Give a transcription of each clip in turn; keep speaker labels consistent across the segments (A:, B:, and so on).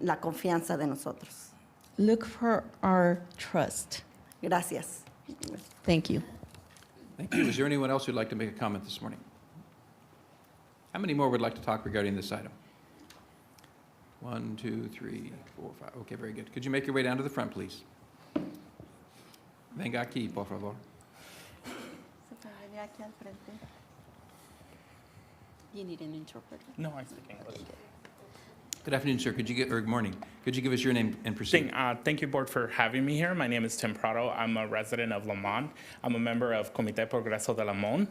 A: la confianza de nosotros.
B: Look for our trust.
A: Gracias.
B: Thank you.
C: Thank you. Is there anyone else who'd like to make a comment this morning? How many more would like to talk regarding this item? One, two, three, four, five. Okay, very good. Could you make your way down to the front, please? Venga aquí, por favor.
D: You need an interpreter.
E: No, I speak English.
C: Good afternoon, sir. Could you get, or good morning. Could you give us your name and proceed?
E: Thing, uh, thank you, board, for having me here. My name is Tim Prado. I'm a resident of Lamont. I'm a member of Comité Progreso de Lamont.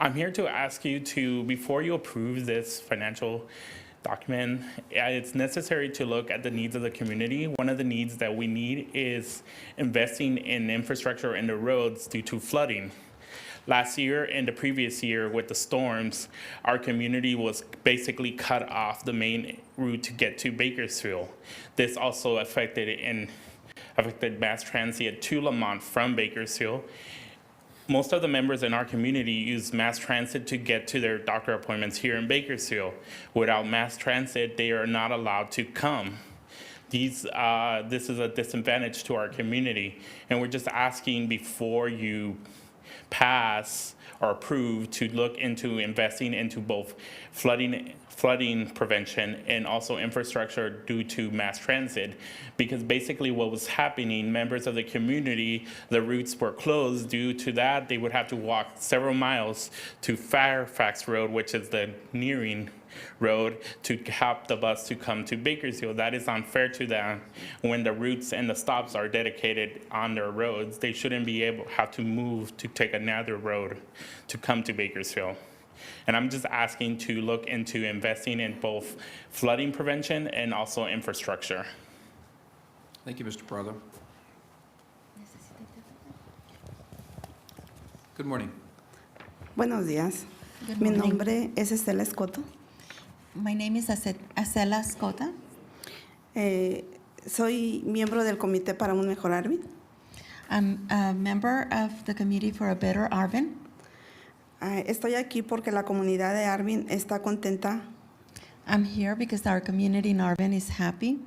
E: I'm here to ask you to, before you approve this financial document, uh, it's necessary to look at the needs of the community. One of the needs that we need is investing in infrastructure in the roads due to flooding. Last year and the previous year with the storms, our community was basically cut off the main route to get to Bakersfield. This also affected and affected mass transit to Lamont from Bakersfield. Most of the members in our community use mass transit to get to their doctor appointments here in Bakersfield. Without mass transit, they are not allowed to come these, uh, this is a disadvantage to our community. And we're just asking before you pass or approve to look into investing into both flooding, flooding prevention and also infrastructure due to mass transit. Because basically what was happening, members of the community, the routes were closed. Due to that, they would have to walk several miles to Fairfax Road, which is the nearing road to help the bus to come to Bakersfield. That is unfair to them. When the routes and the stops are dedicated on their roads, they shouldn't be able, have to move to take another road to come to Bakersfield. And I'm just asking to look into investing in both flooding prevention and also infrastructure.
C: Thank you, Mr. Prado. Good morning.
F: Buenos días.
D: Good
F: Mi
D: morning.
F: nombre es Estela Escoto.
D: My name is Ace- Acela Scota.
F: Eh, soy miembro del Comité para un Mejor Arvin.
D: I'm a member of the Committee for a Better Arvin.
F: Ah, estoy aquí porque la comunidad de Arvin está contenta
D: I'm here because our community in Arvin is happy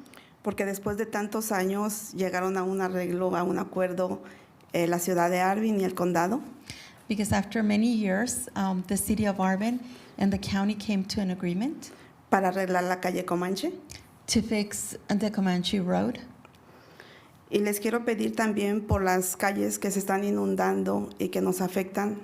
F: porque después de tantos años llegaron a un arreglo, a un acuerdo eh, la ciudad de Arvin y el condado.
D: because after many years, um, the city of Arvin and the county came to an agreement
F: para arreglar la calle Comanche.
D: to fix the Comanche Road.
F: Y les quiero pedir también por las calles que se están inundando y que nos afectan,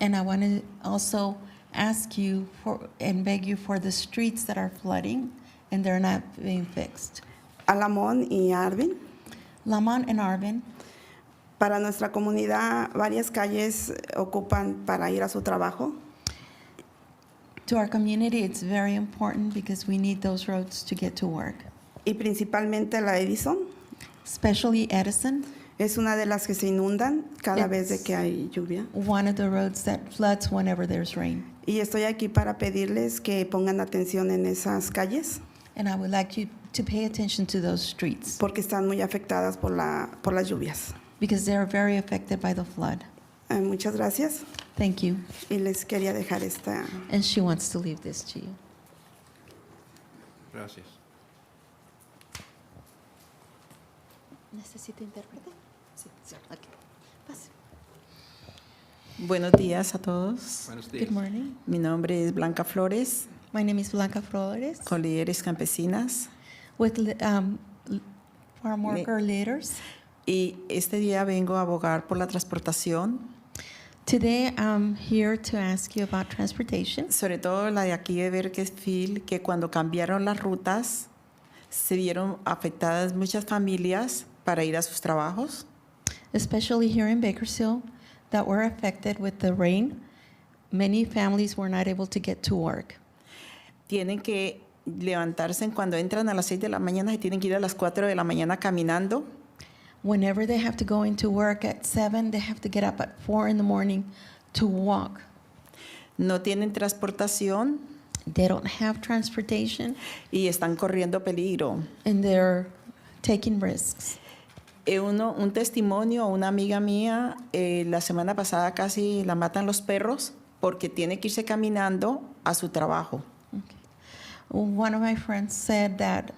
D: And I want to also ask you for and beg you for the streets that are flooding and they're not being fixed.
F: Alamón y Arvin.
D: Lamont and Arvin,
F: Para nuestra comunidad, varias calles ocupan para ir a su trabajo.
D: to our community, it's very important because we need those roads to get to work.
F: y principalmente la Edison.
D: Especially Edison,
F: Es una de las que se inundan cada
D: Yes.
F: vez de que hay lluvia.
D: one of the roads that floods whenever there's rain.
F: Y estoy aquí para pedirles que pongan atención en esas calles
D: And I would like you to pay attention to those streets
F: porque están muy afectadas por, la, por las lluvias.
D: because they are very affected by the flood.
F: Eh, muchas gracias
D: Thank you.
F: y les quería dejar esta.
D: And she wants to leave this to you.
C: Gracias.
D: ¿Necesita intérprete? Sí,
G: Buenos días a todos.
C: Buenos días.
D: Good morning.
G: Mi nombre es Blanca Flores,
D: My name is Blanca Flores
G: con Líderes Campesinas.
D: with li- um, l- Farm
G: Me-
D: Worker Leaders.
G: Y este día vengo a abogar por la transportación,
D: Today, I'm here to ask you about transportation,
G: sobre todo la de aquí de Berkesfield, que cuando cambiaron las rutas se vieron afectadas muchas familias para ir a sus trabajos.
D: especially here in Bakersfield, that were affected with the rain. Many families were not able to get to work.
G: Tienen que levantarse cuando entran a las 6 de la mañana y tienen que ir a las 4 de la mañana caminando.
D: Whenever they have to go into work at seven, they have to get up at four in the morning to walk.
G: No tienen transportación
D: They don't have transportation,
G: y están corriendo peligro.
D: and they're taking risks.
G: Eh, uno- un testimonio, una amiga mía, eh, la semana pasada casi la matan los perros porque tiene que irse caminando a su trabajo.
D: One of my friends said that